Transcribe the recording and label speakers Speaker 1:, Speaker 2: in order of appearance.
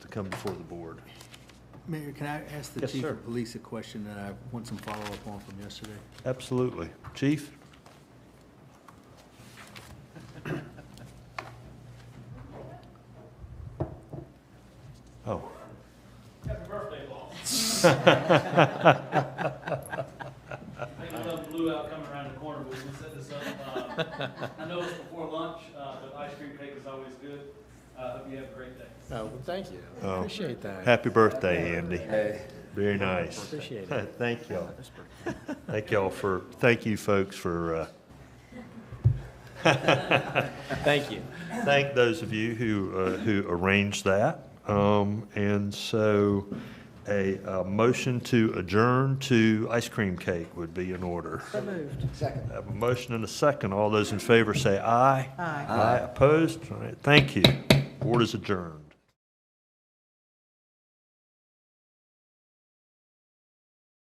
Speaker 1: come before the board.
Speaker 2: Mayor, can I ask the
Speaker 1: Yes,
Speaker 2: chief
Speaker 1: sir.
Speaker 2: of police a question that I want some follow-up on from yesterday?
Speaker 1: Absolutely. Chief? Oh.
Speaker 3: Happy birthday, boss. I think I love blue out coming around the corner, but we can set this up. uh, I know it's before lunch, uh, but ice cream cake is always good. Uh, Hope you have a great day.
Speaker 4: Oh, well, thank you.
Speaker 1: Oh.
Speaker 4: Appreciate that.
Speaker 1: Happy birthday, Andy. Very nice.
Speaker 4: Appreciate
Speaker 1: Thank y'all. Thank y'all for, thank you folks for, uh,
Speaker 4: Thank you.
Speaker 1: thank those of you who, uh, who arranged that. Um, and so a, uh motion to adjourn to ice cream cake would be in order.
Speaker 4: Second.
Speaker 1: I have a motion and a second. All those in favor say aye. Aye. Aye, opposed? All right, thank you. Board is adjourned.